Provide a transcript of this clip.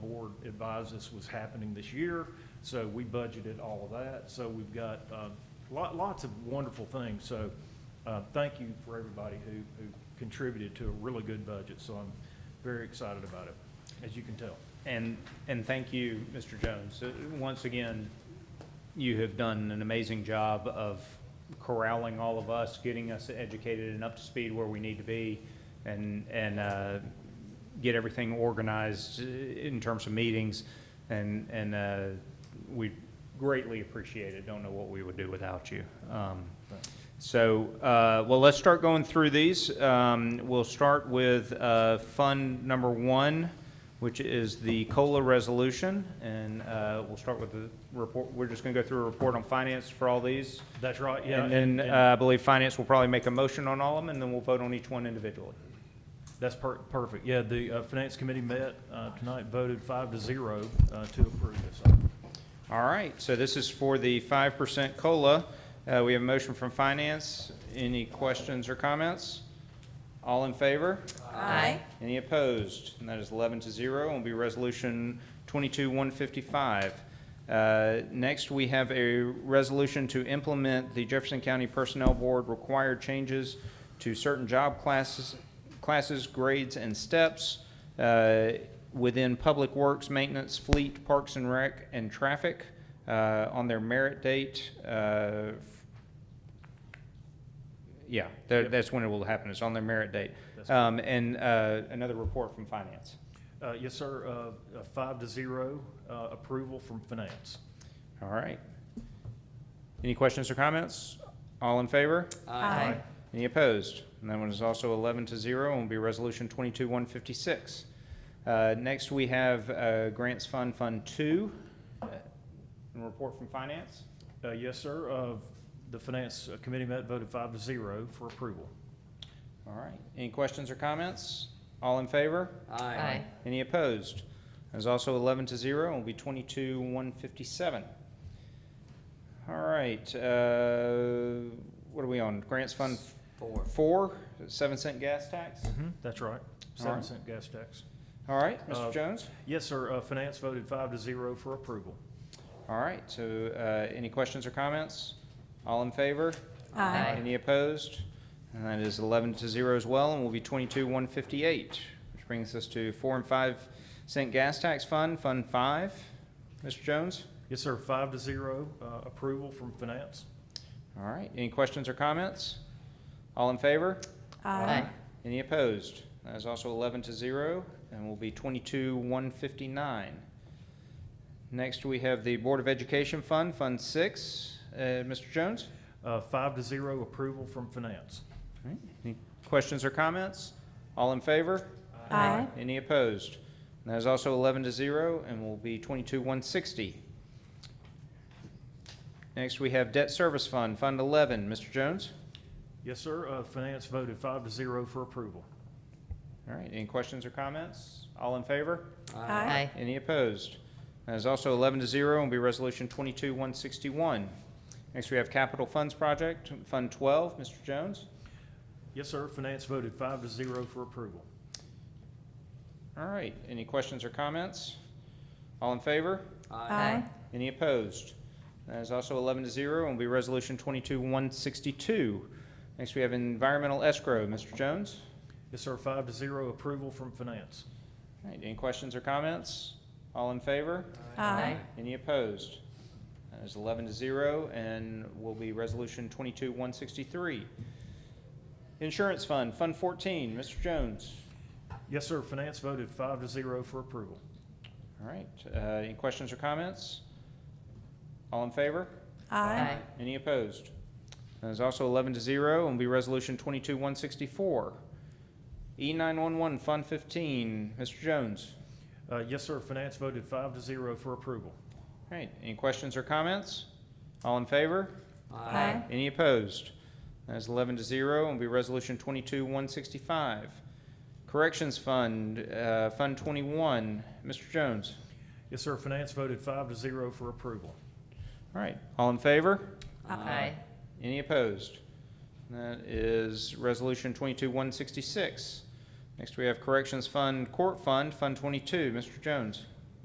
advised us was happening this year. So we budgeted all of that. So we've got um, lot- lots of wonderful things. So uh, thank you for everybody who who contributed to a really good budget. So I'm very excited about it, as you can tell. And, and thank you, Mr. Jones. Uh, Once again, you have done an amazing job of corralling all of us, getting us educated and up to speed where we need to be, and, and uh, get everything organized uh, in terms of meetings, and, and uh, we greatly appreciate it. Don't know what we would do without you. Um, So, uh, well, let's start going through these. Um, We'll start with uh, Fund Number One, which is the COLA resolution, and uh, we'll start with the report. We're just going to go through a report on finance for all these. That's right, yeah. And then uh, I believe finance will probably make a motion on all of them, and then we'll vote on each one individually. That's per- perfect. Yeah, the uh, Finance Committee met uh, tonight, voted five to zero uh, to approve this. item. All right, so this is for the 5% COLA. Uh, We have a motion from finance. Any questions or comments? All in favor? Aye. Any opposed? And that is 11 to 0, and will be Resolution 22-155. Uh, Next, we have a resolution to implement the Jefferson County Personnel Board required changes to certain job classes, classes, grades, and steps uh, within Public Works, Maintenance, Fleet, Parks and Rec, and Traffic uh, on their merit date uh, yeah, tha- that's when it will happen. It's on their merit date. That's Um, and, uh, another report from finance. Uh, Yes, sir, uh, uh, five to zero uh, approval from Finance. All right. Any questions or comments? All in favor? Aye. Any opposed? And that one is also 11 to 0 and will be Resolution 22-156. Uh, Next, we have uh, Grants Fund, Fund 2. Uh, And report from Finance. Uh, Yes, sir, uh, the Finance uh, Committee met, voted five to zero for approval. All right. Any questions or comments? All in favor? Aye. Any opposed? That is also 11 to 0 and will be 22, 157. All right, uh, what are we on? Grants Fund Four. 4, 7 cent gas tax? That's right, Mm-hmm. All seven right. cent gas tax. All right, Uh, Mr. Jones? Yes, sir, uh, Finance voted five to zero for approval. All right, so uh, any questions or comments? All in favor? Aye. Any opposed? And that is 11 to 0 as well, and will be 22, 158, which brings us to 4 and 5 cent gas tax fund, Fund 5. Mr. Jones? Yes, sir, five to zero uh, approval from Finance. All right, any questions or comments? All in favor? Aye. Any opposed? That is also 11 to 0, and will be 22-159. Next, we have the Board of Education Fund, Fund 6. Uh, Mr. Jones? Uh, Five to zero approval from Finance. All right, Any questions or comments? All in favor? Aye. Any opposed? And that is also 11 to 0, and will be 22-160. Next, we have Debt Service Fund, Fund 11. Mr. Jones? Yes, sir, uh, Finance voted five to zero for approval. All right, any questions or comments? All in favor? Aye. Any opposed? That is also 11 to 0 and will be Resolution 22-161. Next, we have Capital Funds Project, Fund 12. Mr. Jones? Yes, sir, Finance voted five to zero for approval. All right, any questions or comments? All in favor? Aye. Any opposed? That is also 11 to 0 and will be Resolution 22-162. Next, we have Environmental Escrow. Mr. Jones? Yes, sir, five to zero approval from Finance. All right, any questions or comments? All in favor? Aye. Any opposed? That is 11 to 0 and will be Resolution 22-163. Insurance Fund, Fund 14, Mr. Jones. Yes, sir, Finance voted five to zero for approval. All right, uh, any questions or comments? All in favor? Aye. Any opposed? That is also 11 to 0 and will be Resolution 22-164. E E911, Fund 15, Mr. Jones. Uh, Yes, sir, Finance voted five to zero for approval. All right, any questions or comments? All in favor? Aye. Any opposed? That is 11 to 0, and will be Resolution 22-165. Corrections Fund, uh, Fund 21, Mr. Jones. Yes, sir, Finance voted five to zero for approval. All right, all in favor? Aye. Any opposed? That is Resolution 22-166. Next, we have Corrections Fund, Court Fund, Fund 22, Mr. Jones.